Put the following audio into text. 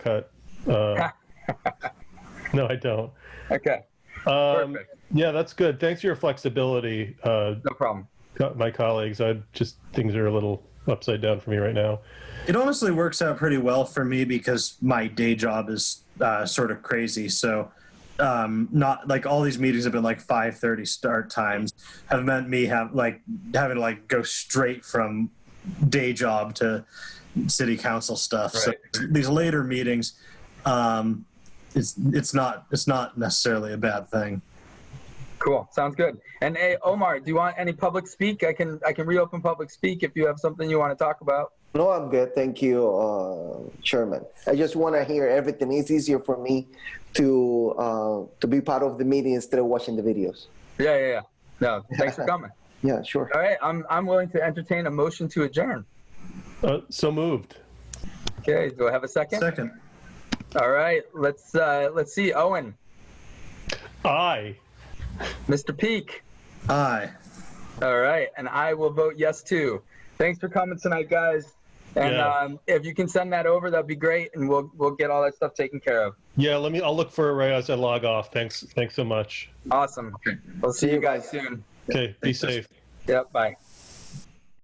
cut. Uh, no, I don't. Okay, Um, Perfect. yeah, that's good. Thanks for your flexibility, uh, no problem. co- my colleagues. I just things are a little upside down for me right now. It honestly works out pretty well for me because my day job is uh, sort of crazy. So, um, not like all these meetings have been like five thirty start times have meant me have like having to like go straight from day job to city council stuff. So these later meetings, um, it's it's not it's not necessarily a bad thing. Cool, sounds good. And hey, Omar, do you want any public speak? I can I can reopen public speak if you have something you want to talk about. No, I'm good. Thank you, uh, Chairman. I just want to hear everything. It's easier for me to uh, to be part of the meeting instead of watching the videos. Yeah, yeah, yeah. No, thanks for coming. Yeah, sure. All right, I'm I'm willing to entertain a motion to adjourn. Uh, so moved. Okay, do I have a second? Second, All right, let's uh, let's see. Owen, Aye. Mr. Peak. aye. All right, and I will vote yes too. Thanks for coming tonight, guys. And Yeah. um, if you can send that over, that'd be great, and we'll we'll get all that stuff taken care of. Yeah, let me. I'll look for it right as I log off. Thanks. Thanks so much. Awesome. We'll see you guys soon. Okay. Be Thanks. safe. Yep. Bye.